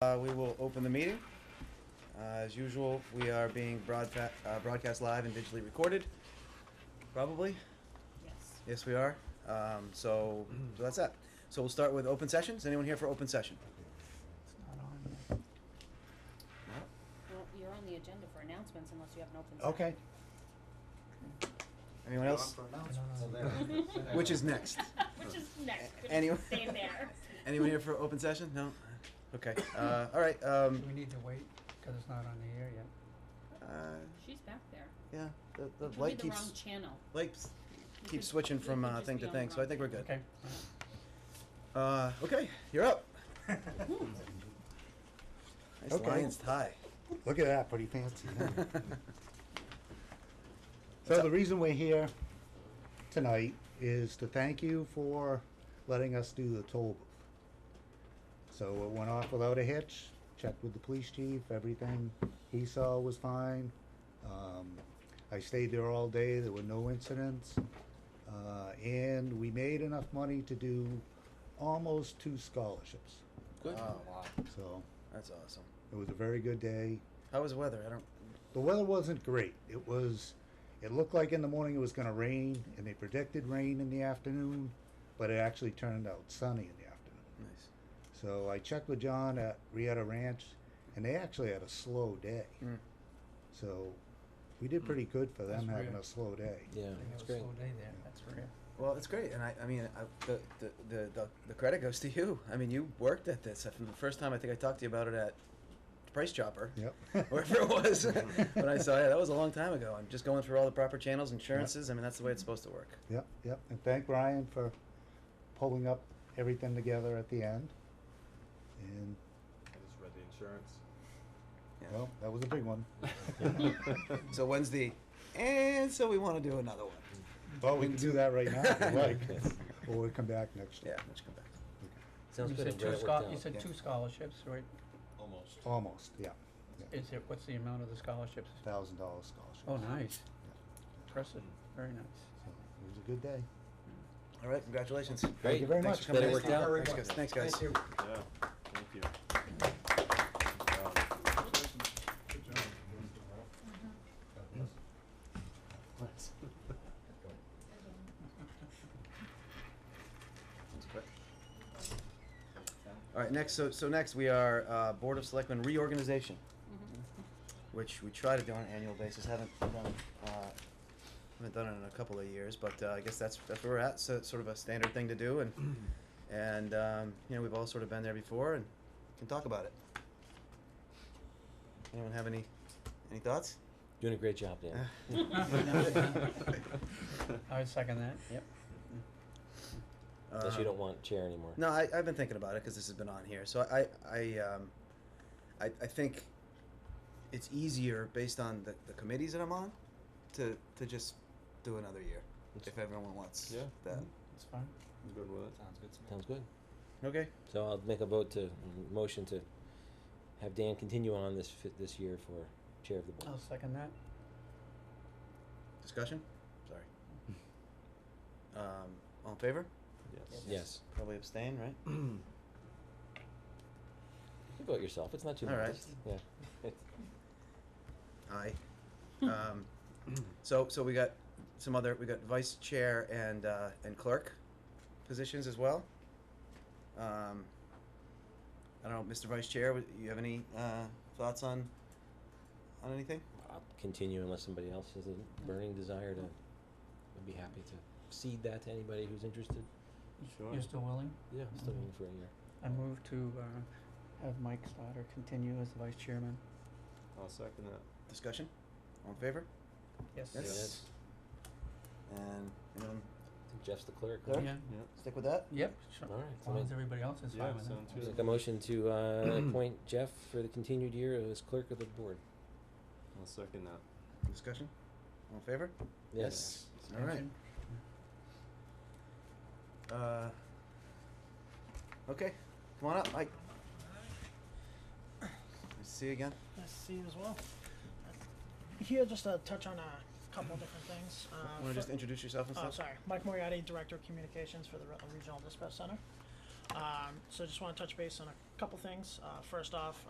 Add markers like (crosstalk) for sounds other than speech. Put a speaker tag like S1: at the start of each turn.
S1: Uh, We will open the meeting. Uh, As usual, we are being broadfa- uh, broadcast live and digitally recorded, probably.
S2: Yes.
S1: Yes, we are. Um, So, so that's that. So we'll start with open sessions. Anyone here for open session? No?
S2: Well, you're on the agenda for announcements unless you have an open
S3: Okay.
S2: session.
S1: Anyone else?
S3: Uh, (laughs)
S1: Which is next.
S2: (laughs) Which is next. Could
S1: Any-
S2: just stay there.
S1: Anyone here for open session? No? Okay, uh, all right,
S3: Do
S1: um,
S3: we need to wait, cause it's not on the air yet?
S1: uh,
S2: She's back there.
S1: yeah, the,
S2: Which
S1: the
S2: would be
S1: light
S2: the wrong
S1: keeps,
S2: channel.
S1: light s-
S2: You
S1: keeps
S2: could-
S1: switching
S2: you
S1: from
S2: could
S1: uh,
S2: just
S1: thing
S2: be
S1: to
S2: on the
S1: thing, so I
S2: wrong
S1: think we're good.
S3: Okay.
S1: Uh, okay, you're
S4: (laughs)
S1: up. Nice
S4: Okay.
S1: Lions tie. (laughs)
S4: Look at that, pretty fancy. huh?
S1: What's
S4: So the
S1: up?
S4: reason we're here tonight is to thank you for letting us do the toll booth. So it went off without a hitch, checked with the police chief, everything he saw was fine. Um, I stayed there all day, there were no incidents. Uh, and we made enough money to do almost two scholarships,
S1: Good.
S3: Oh, wow.
S4: so
S1: That's awesome.
S4: it was a very good day.
S1: How was the weather? I don't.
S4: The weather wasn't great. It was, it looked like in the morning it was going to rain, and they predicted rain in the afternoon, but it actually turned out sunny in the afternoon.
S1: Nice.
S4: So I checked with John at Rieta Ranch, and they actually had a slow day.
S1: Mm.
S4: So we did pretty good for them
S3: That's
S4: having
S3: rare.
S4: a slow day.
S3: I
S5: Yeah,
S3: think it was
S5: it's
S3: a
S5: great.
S3: slow day there, that's rare.
S1: Well, it's great, and I, I mean, I, the, the, the, the, the credit goes to you. I mean, you worked at this. From the first time I think I talked to you about it at Price Chopper,
S4: Yep.
S1: (laughs) wherever it
S4: (laughs)
S1: was, when I saw it, that was a long time ago. I'm just going through all the proper channels, insurances. I mean, that's the way it's supposed to work.
S4: Yep, yep. And thank Brian for pulling up everything together at the end. And,
S6: I just read the insurance.
S1: Yeah.
S4: well, that was a big
S6: (laughs)
S4: one. (laughs)
S1: So Wednesday, and so we want to do another one.
S4: Well, we can do that right now if you
S1: (laughs)
S4: like,
S5: Yes.
S4: or we'll come back next
S1: Yeah,
S4: year.
S1: let's come back.
S5: Sounds
S3: You
S5: good.
S3: said
S5: I'm
S3: two
S5: glad it
S3: scho-
S5: worked
S3: You
S5: out.
S3: said
S1: Yeah.
S3: two scholarships, right?
S6: Almost.
S4: Almost, yeah.
S3: Is it, what's the amount of the scholarships?
S4: Thousand dollar scholarship.
S3: Oh, nice.
S4: Yeah.
S3: Impressive, very nice.
S4: So it was a good day.
S1: All right, congratulations.
S4: Thank you very
S1: Thanks
S4: much.
S1: for coming
S5: Glad it
S1: in.
S5: worked out.
S1: Thanks, guys. Thanks, guys.
S6: Yeah, thank you. Um,
S1: All right, next, so, so next we are, uh, Board of Selectmen reorganization, which we try to do on an annual basis, haven't done, uh, haven't done it in a couple of years, but, uh, I guess that's, that's where we're at, so it's sort of a standard thing to do, and, and, um, you know, we've all sort of been there before and can talk about it. Anyone have any, any thoughts?
S5: (laughs) Doing a great job, Dan. (laughs)
S3: (laughs) I would second that, yep.
S5: Unless you
S1: Um,
S5: don't want chair anymore.
S1: No, I, I've been thinking about it because this has been on here. So I, I, um, I, I think it's easier based on the, the committees that I'm on to to just do another year if everyone wants
S6: Yeah.
S1: that.
S3: It's fine.
S6: I'm good with it.
S5: Sounds good.
S1: Okay.
S5: So I'll make a vote to, motion to have Dan continue on this fit this year for chair of the board.
S3: I'll second that.
S1: Discussion. Sorry. Um, all in favor?
S6: Yes.
S5: Yes.
S1: Probably abstain, right?
S5: You vote yourself. It's not too
S1: All right.
S5: modest. Yeah. (laughs) It's-
S1: Aye. Um, so so we got some other we got vice chair and uh, and clerk positions as well. Um, I don't know, Mr. Vice Chair, would- you have any uh, thoughts on on anything?
S5: I'll continue unless somebody else has a burning desire to, I'd be happy to cede that to anybody who's interested.
S6: Sure.
S3: You're still willing?
S5: Yeah, I'm still in for a year.
S3: I move to, uh, have Mike Stoddard continue as the vice chairman.
S6: I'll second that.
S1: Discussion? All in favor?
S3: Yes.
S5: Yeah,
S1: Yes.
S5: that's-
S1: And anyone
S5: I think Jeff's the clerk.
S1: Clerk?
S5: right?
S3: Yeah,
S1: stick with that?
S3: yep, sure.
S5: All right.
S3: As long as everybody else is
S6: Yeah,
S3: fine with it.
S6: sounds
S5: I'll
S6: good.
S5: Make a motion to, uh, appoint Jeff for the continued year as clerk of the board.
S6: I'll second that.
S1: Discussion? All in favor?
S5: Yes.
S1: All right.
S3: Abstention?
S1: Uh, okay, come on up, Mike. Nice to see you again.
S7: Nice to see you as well. Here, just to touch on a couple of different things. Uh,
S1: Want to
S7: fir-
S1: just introduce yourself and
S7: Oh,
S1: stuff?
S7: sorry. Mike Moriarty, Director of Communications for the Rutland Regional Dispatch Center. Um, so just want to touch base on a couple things. Uh, first off,